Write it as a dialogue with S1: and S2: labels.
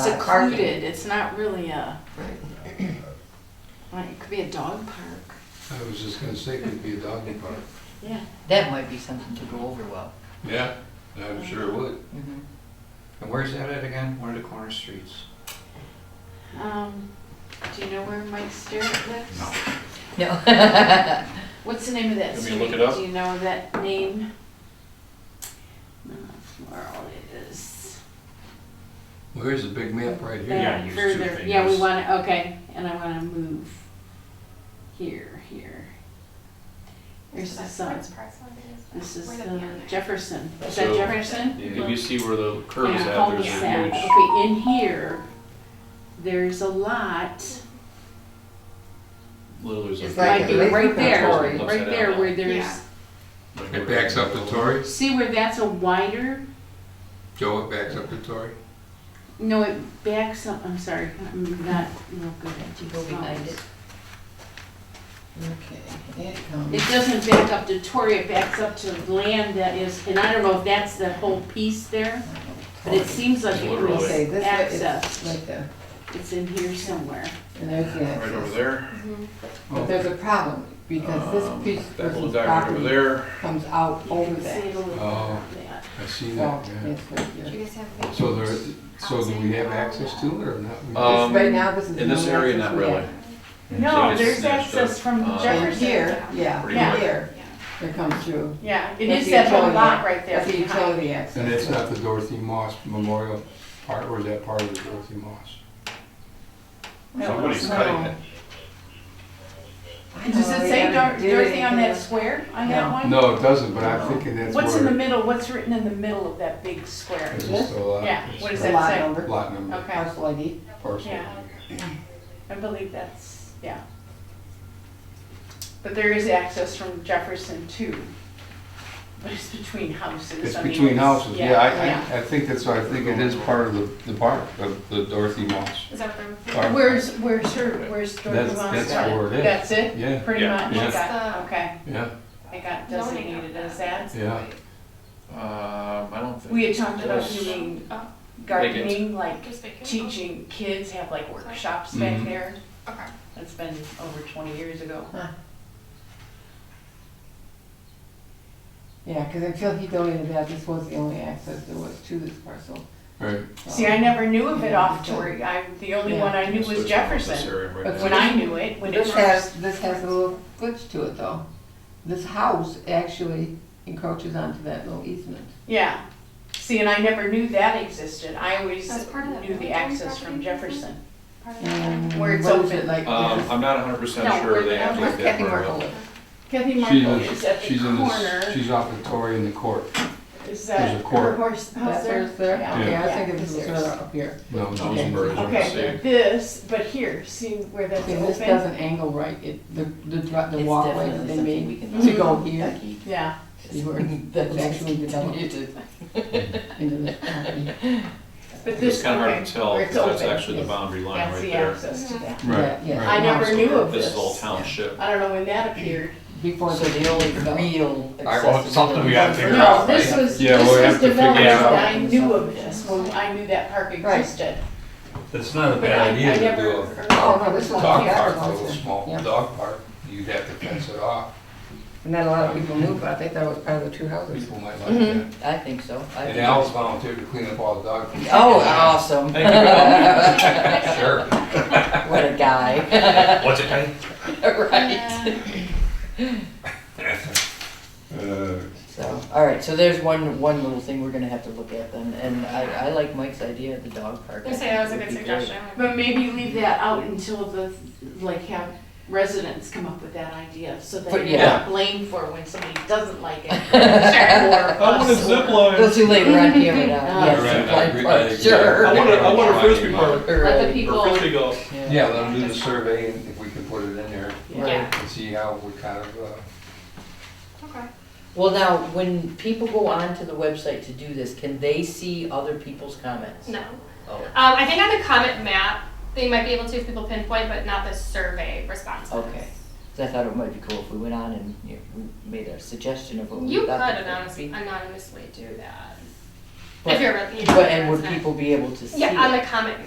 S1: like carpet.
S2: included, it's not really a,
S1: Right.
S2: like, it could be a dog park.
S3: I was just gonna say, could be a doggy park.
S2: Yeah.
S4: That might be something to go over well.
S3: Yeah, I'm sure it would.
S2: Mm-hmm.
S4: Mhm.
S5: And where's that at again? One of the corner streets?
S2: Um, do you know where Mike Stewart lives?
S5: No.
S4: No.
S2: What's the name of that
S6: Want me
S2: street?
S6: to look it up?
S2: Do you know that name? Uh, Laurel it is.
S3: Where's the big map right here?
S6: Yeah.
S2: back
S6: use two
S2: Further, yeah, we
S6: fingers.
S2: want, to okay, and I want to move here, here. There's the sun. This is the Jefferson. Is that
S6: So-
S2: Jefferson?
S6: If you see where the curve is
S2: Yeah,
S6: at, there's
S2: cul-de-sac.
S6: a huge,
S2: Okay, in here, there's a lot,
S6: literally there's
S1: It's
S6: a.
S1: like
S2: like
S1: a
S6: huge-
S1: big
S2: right there,
S1: Tory.
S2: right there where there's,
S6: Like
S3: It backs up to Torrey?
S2: see where that's a wider,
S3: Joe, it backs up to Torrey?
S2: no, it backs up, I'm sorry, I'm not real good at these
S4: Go behind it.
S2: lines.
S4: Okay, it
S2: It
S4: comes.
S2: doesn't back up to Torrey, it backs up to land that is, and I don't know if that's the whole piece there, but it seems like it
S6: Literally.
S2: was
S1: Okay, this way, it's
S2: access.
S1: like the,
S2: It's in here somewhere.
S1: and there's the
S6: Right over
S1: access.
S6: there.
S7: Mm-hmm.
S1: But
S3: Oh,
S1: there's a problem, because
S6: Um,
S1: this piece
S6: That little
S1: person's
S6: dot right over
S1: property
S6: there.
S1: comes out
S2: You
S1: over
S2: can see it
S1: that.
S2: a little
S3: Oh.
S2: bit on that.
S3: I see
S1: Well,
S3: that, yeah.
S1: yes, right here.
S3: So there, so do we have access to it or not?
S6: Uh,
S1: This-
S6: Um,
S1: Right now, this is.
S6: in this
S1: the only
S6: area,
S1: access
S6: not
S1: we
S6: really.
S1: have.
S2: No,
S6: it's
S2: there's
S6: snatched up,
S2: access from
S6: uh,
S1: And
S2: Jefferson.
S1: here, yeah,
S6: Pretty
S1: yeah,
S6: much.
S1: here, it comes through.
S2: Yeah, it
S1: That's
S2: is
S1: the
S2: that whole
S1: utility
S2: lot
S1: ac-
S2: right there
S1: That's the
S2: behind.
S1: utility access.
S3: And it's not the Dorothy Moss Memorial part, or is that part of the Dorothy Moss?
S6: Somebody's cutting it.
S2: Does it
S1: Oh,
S2: say Dor- Dorothy on that square, on that
S1: No.
S2: one?
S3: No, it doesn't, but I'm thinking that's
S2: What's in the
S3: where.
S2: middle, what's written in the middle of that big square?
S3: It's just a lot.
S2: Yeah, what is
S1: It's
S2: that
S1: a lot
S2: say?
S1: number,
S3: Lot number,
S2: Okay,
S1: parcel ID.
S3: parcel.
S2: Yeah. I believe that's, yeah. But there is access from Jefferson too. But it's between houses.
S3: It's
S2: I mean,
S3: between houses, yeah,
S2: yeah.
S3: I- I, I think that's, why I think it is part of the, the park, of the Dorothy Moss.
S7: Is that from?
S3: Or-
S2: Where's, where's her, where's Dorothy
S3: That's-
S2: Vaughn's?
S3: that's where it is.
S2: That's it?
S3: Yeah,
S2: Pretty
S6: Yeah.
S2: much, I
S3: Yeah.
S2: got, okay,
S3: yeah,
S2: I got designated as that.
S3: yeah.
S6: Um, I don't think.
S2: We had talked about
S6: Yes.
S2: doing
S7: Oh.
S2: gardening, like
S7: Just vacation?
S2: teaching kids, have like workshops back
S3: Mhm.
S2: there.
S7: Okay.
S2: That's been over twenty years ago.
S1: Yeah, because until he donated that, this was the only access there was to this parcel.
S3: Right,
S2: See, I never knew of it
S1: Yeah.
S2: off Torrey. I, the only
S1: Yeah.
S2: one I knew
S6: So
S2: was
S6: it's about this
S2: Jefferson.
S6: area right
S1: But
S6: now.
S2: When I knew it, when it
S1: This
S2: first.
S1: has, this has a little glitch to it though. This house actually encroaches onto that little easement.
S2: Yeah. See, and I never knew that existed. I always
S7: That's part of that
S2: knew the
S7: military
S2: access from
S7: property,
S2: Jefferson.
S7: Part of
S1: And
S7: that.
S2: Where it's
S1: what is it,
S2: open.
S1: Like,
S6: Um,
S1: there's
S6: I'm not hundred percent
S2: No,
S6: sure they have to
S1: where's
S6: get that
S1: Kathy
S6: far
S1: Merkel
S6: out.
S1: live?
S2: Kathy
S3: She's,
S2: Markle is at
S3: in-
S2: the
S3: she's in, the-
S2: corner.
S3: she's off the Tory in the court.
S2: Is that
S3: a court.
S2: her horse house
S1: that
S2: there?
S1: there's there?
S2: Yeah.
S1: Okay, I
S2: Yeah.
S1: think it was
S2: There's-
S1: further up here.
S3: No,
S6: No,
S3: okay.
S6: Rosenberg is on the
S2: Okay,
S6: same.
S2: this, but here, see where that's
S1: Okay, this
S2: open?
S1: doesn't angle right, it, the, the dri- the
S4: It's
S1: walkway
S4: definitely
S1: that they
S4: something we
S1: made
S4: can
S1: to
S2: do.
S1: go here,
S4: Becky,
S2: Yeah.
S1: is where that's actually developed
S4: you to-
S1: into this property.
S2: But
S6: It's
S2: this,
S6: kind of hard
S2: okay,
S6: to tell,
S2: where it's
S6: because that's
S2: open.
S6: actually the
S1: yes.
S6: boundary line
S2: That's
S6: right
S2: the
S6: there.
S2: access to that.
S3: Right,
S1: Yeah, yeah.
S2: I
S3: right.
S2: never knew of
S6: This is all
S2: this.
S6: township.
S2: I don't know when that appeared.
S1: Before
S4: So
S1: the
S4: the only real
S5: All right, well,
S4: accessibility.
S5: it's something we gotta figure
S2: No,
S5: out,
S2: this
S5: right?
S2: was,
S3: Yeah,
S2: this
S3: we'll
S2: was
S3: have to figure
S2: developed,
S6: it out.
S2: I knew of this, when I knew that park
S1: Right.
S2: existed.
S3: It's not a
S2: But I, I never.
S1: Oh, no, this one
S3: Dog
S1: here.
S3: park, a little small
S1: Yeah.
S3: dog park, you'd have to fence it off,
S1: Not a lot of people knew, but I think that was part of the two houses.
S3: people might like
S2: Mm-hmm.
S3: that.
S4: I think so. I
S3: And
S4: think-
S3: Al's volunteered to clean up all the dog. food.
S4: Oh, awesome.
S3: Sure.
S4: What a guy.
S5: What's it called?
S4: Right.
S3: Uh,
S4: So, all right, so there's one, one little thing we're gonna have to look at then, and I, I like Mike's idea of the dog park.
S7: I say that was a
S4: It
S7: good
S4: would be great.
S7: suggestion.
S2: But maybe leave that out until the, like, have residents come up with that idea, so that
S4: But
S2: you're
S4: yeah.
S2: not blamed for when somebody doesn't like it. Sure. I
S4: Well, too late, we're on camera now.
S2: Yes,
S3: Right, I agree, I agree.
S4: Yes, sure.
S3: Yeah.
S6: I want a, I want a frisbee park,
S2: Let the
S4: Right,
S2: people,
S6: or frisbee golf.
S3: Yeah, let them do the survey and if we can put it in there
S4: right.
S3: and see how we kind of, uh,
S7: Okay.
S4: Well, now, when people go onto the website to do this, can they see other people's comments?
S7: No.
S4: Oh,
S7: Um, I think on the comment map, they might be able to if people pinpoint, but not the survey responses.
S4: Okay. 'Cause I thought it might be cool if we went on and, you know, we made a suggestion of what we
S7: You could
S4: thought. that would
S7: anonymously,
S4: be.
S7: anonymously do that.
S4: But-
S7: If you're. you know,
S4: But, and
S7: it's
S4: would
S7: not-
S4: people be able to see it?
S7: Yeah, on the comment